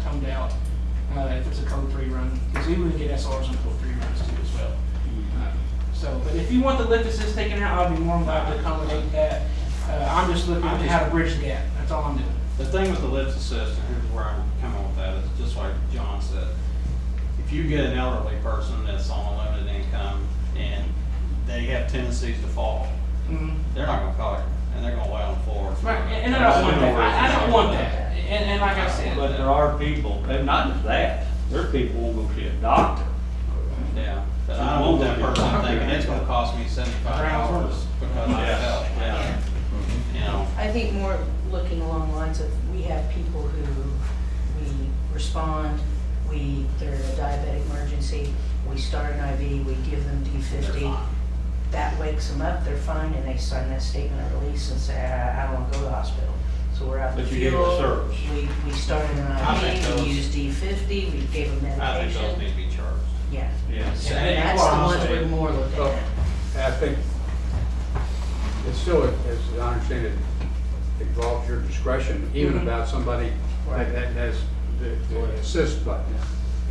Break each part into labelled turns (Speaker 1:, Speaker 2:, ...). Speaker 1: found out uh, if it's a code three run, because we would get SRs on code three runs too as well.
Speaker 2: Mm-hmm.
Speaker 1: Uh, So, but if you want the lift assist taken out, I'd be more than glad to accommodate that. Uh, I'm just looking at how to bridge the gap, that's all I'm doing.
Speaker 3: The thing with the lift assist, and here's where I'm coming with that, is just like John said, if you get an elderly person that's on a limited income and they have tendencies to fall,
Speaker 1: Mhm.
Speaker 2: Mm-hmm.
Speaker 3: they're not gonna call you, and they're gonna lay on the floor.
Speaker 1: Right, and and I don't want that, I, I don't want that, and, and like I said.
Speaker 4: But there are people, and not just that, there are people who will go see a doctor.
Speaker 3: Yeah, but I don't want that person thinking it's gonna cost me seventy-five dollars because I
Speaker 4: Yeah.
Speaker 3: fell, yeah. You know,
Speaker 5: I think more looking along the lines of, we have people who, we respond, we, they're in a diabetic emergency, we start an IV, we give them D
Speaker 3: they're
Speaker 5: fifty.
Speaker 3: fine.
Speaker 5: That wakes them up, they're fine, and they sign that statement of release and say, I, I don't wanna go to the hospital. So we're out the
Speaker 4: But you
Speaker 5: fuel.
Speaker 4: gave them service.
Speaker 5: We, we started
Speaker 3: I
Speaker 5: an
Speaker 3: think
Speaker 5: IV,
Speaker 3: those-
Speaker 5: we used D fifty, we gave them
Speaker 3: I think those
Speaker 5: medication.
Speaker 3: need to be charged.
Speaker 5: Yeah.
Speaker 4: Yes.
Speaker 5: So
Speaker 3: Yeah, and
Speaker 5: that's
Speaker 3: quite
Speaker 5: the ones
Speaker 3: honestly-
Speaker 5: we're more looking
Speaker 2: Oh.
Speaker 5: at.
Speaker 2: And I think it's still, as I understand it, involves your discretion, even
Speaker 5: Mhm.
Speaker 1: Mm-hmm.
Speaker 2: about somebody
Speaker 5: Right.
Speaker 2: that that has the the assist button.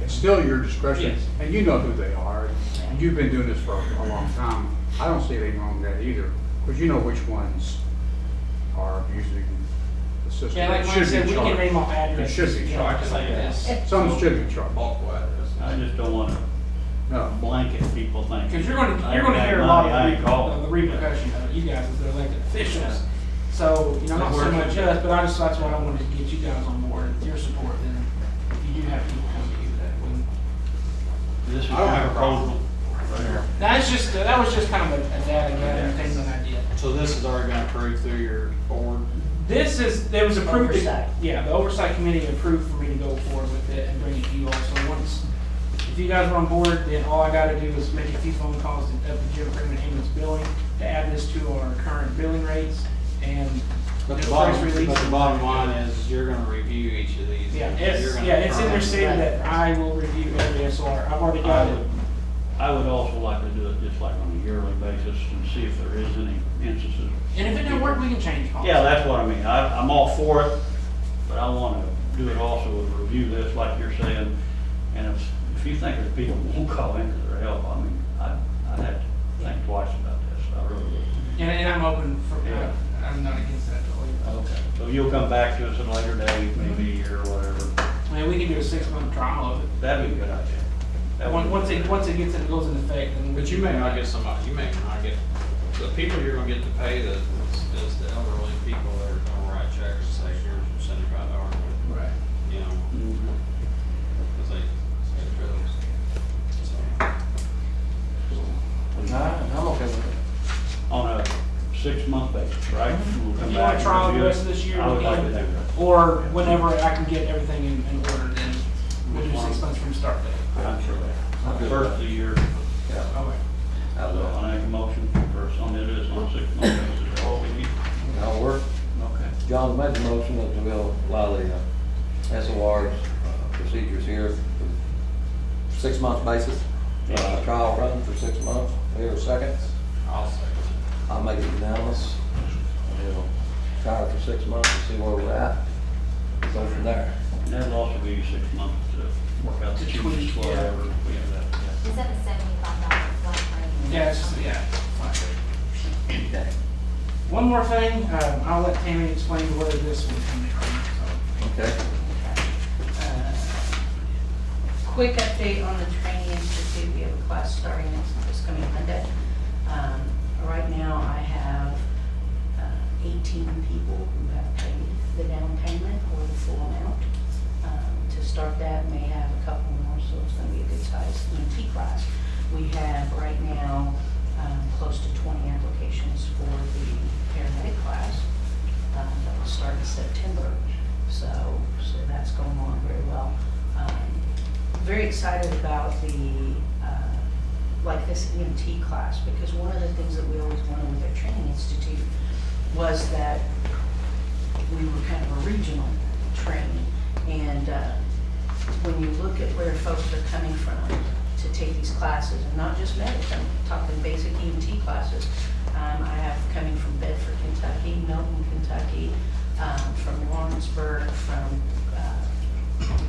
Speaker 2: It's still your discretion,
Speaker 1: Yes.
Speaker 2: and you know who they are, and you've been doing this for a long time. I don't see anything wrong with that either, because you know which ones are abusing the system.
Speaker 1: Yeah, like
Speaker 2: It
Speaker 1: Mike
Speaker 2: should be
Speaker 1: said, we can
Speaker 2: charged.
Speaker 1: name off addresses.
Speaker 2: It should be
Speaker 1: you know,
Speaker 2: charged.
Speaker 1: Like this.
Speaker 2: Some should be charged,
Speaker 3: Multiple addresses.
Speaker 4: I just don't want to
Speaker 2: no.
Speaker 4: blanket people thinking.
Speaker 1: Because you're gonna,
Speaker 4: I
Speaker 1: you're gonna
Speaker 4: got
Speaker 1: hear a lot
Speaker 4: money, I
Speaker 1: of
Speaker 4: ain't
Speaker 1: the-
Speaker 4: calling.
Speaker 1: of the repercussions of you guys as the elected officials. So, you know, not so
Speaker 3: Where's-
Speaker 1: much us, but I just, that's why I wanted to get you guys on board, and your support, then if you do have people come to you that wouldn't.
Speaker 4: This is
Speaker 2: I don't
Speaker 4: my
Speaker 2: have a
Speaker 4: proposal.
Speaker 1: That's just, that was just kind of a a data gathering thing that I did.
Speaker 3: So this has already been approved through your board?
Speaker 1: This is, there was approved,
Speaker 5: Oversight.
Speaker 1: yeah, the oversight committee approved for me to go forward with it and bring it to you all. So once, if you guys are on board, then all I gotta do is make a few phone calls to up the Jim Freeman ambulance billing to add this to our current billing rates and.
Speaker 3: But
Speaker 1: press
Speaker 3: the bottom,
Speaker 1: release.
Speaker 3: but the bottom line is you're gonna review each of these.
Speaker 1: Yeah,
Speaker 3: and you're
Speaker 1: it's,
Speaker 3: gonna
Speaker 1: yeah, it's in there
Speaker 3: determine-
Speaker 1: saying that I will review every SR. I've already
Speaker 4: I
Speaker 1: got
Speaker 4: would,
Speaker 1: it.
Speaker 4: I would also like to do it just like on a yearly basis and see if there is any instances.
Speaker 1: And if it do not work, we can change policy.
Speaker 4: Yeah, that's what I mean. I, I'm all for it, but I want to do it also with review this, like you're saying. And if, if you think there's people who won't call in for their help, I mean, I, I'd have to think twice about this. I really would.
Speaker 1: And, and I'm open for, uh,
Speaker 4: Yeah.
Speaker 1: I'm not against that at all.
Speaker 4: So you'll come back to us at a later date, maybe, or whatever.
Speaker 1: I mean, we can do a six month trial of it.
Speaker 4: That'd be a good idea. That would
Speaker 1: Once,
Speaker 4: be-
Speaker 1: once it, once it gets, it goes into effect, then. we-
Speaker 3: But you may not get somebody, you may not get, the people you're gonna get to pay the, is is the elderly people that are gonna write checks and say, here's your seventy-five dollars,
Speaker 2: Right.
Speaker 3: you know,
Speaker 4: Mhm.
Speaker 3: cause they, they feel it's- so.
Speaker 4: on a six-month basis, right? We'll come
Speaker 1: If Mhm. you
Speaker 4: back
Speaker 1: want
Speaker 4: and
Speaker 1: to try the
Speaker 4: review it.
Speaker 1: rest of this year
Speaker 4: I would like to do
Speaker 1: again,
Speaker 4: that.
Speaker 1: or whenever I can get everything in, in order, then we'll do
Speaker 4: Which
Speaker 1: six
Speaker 4: one?
Speaker 1: months from start date.
Speaker 4: I'm sure that. First of the year,
Speaker 1: Okay.
Speaker 4: so I uh, make a motion for first on it is on a six-month basis, all we need.
Speaker 6: That'll work.
Speaker 4: Okay.
Speaker 6: John, make the motion that we'll allow the uh, SOR's uh, procedures here for six-month basis. Uh, Trial run for six months. Here, a second.
Speaker 3: I'll say.
Speaker 6: I'll make it unanimous. We'll Try it for six months and see where we're at. Go from there.
Speaker 4: And that'll also be six months to work out the
Speaker 1: To
Speaker 4: changes,
Speaker 1: tweak, yeah.
Speaker 4: whatever we have that. yeah.
Speaker 7: Is that a seventy-five dollar flat rate?
Speaker 1: Yeah, it's just, yeah. fine.
Speaker 6: Okay.
Speaker 1: One more thing, um, I'll let Tammy explain where this one coming from,
Speaker 6: Okay.
Speaker 1: so. uh,
Speaker 5: Quick update on the training institute, we have a class starting next, this coming Monday. Um, Right now, I have uh, 18 people who have paid the down payment or the full amount. Um, To start that, may have a couple more, so it's gonna be a good size EMT class. We have right now um, close to 20 applications for the paramedic class um, that will start in September. So, so that's going on very well. Um, Very excited about the, uh, like this EMT class, because one of the things that we always wanted with our training institute was that we were kind of a regional training. And uh, when you look at where folks are coming from to take these classes, and not just medics, I'm talking basic EMT classes. Um, I have coming from Bedford, Kentucky, Milton, Kentucky, um, from Lawrenceburg, from uh,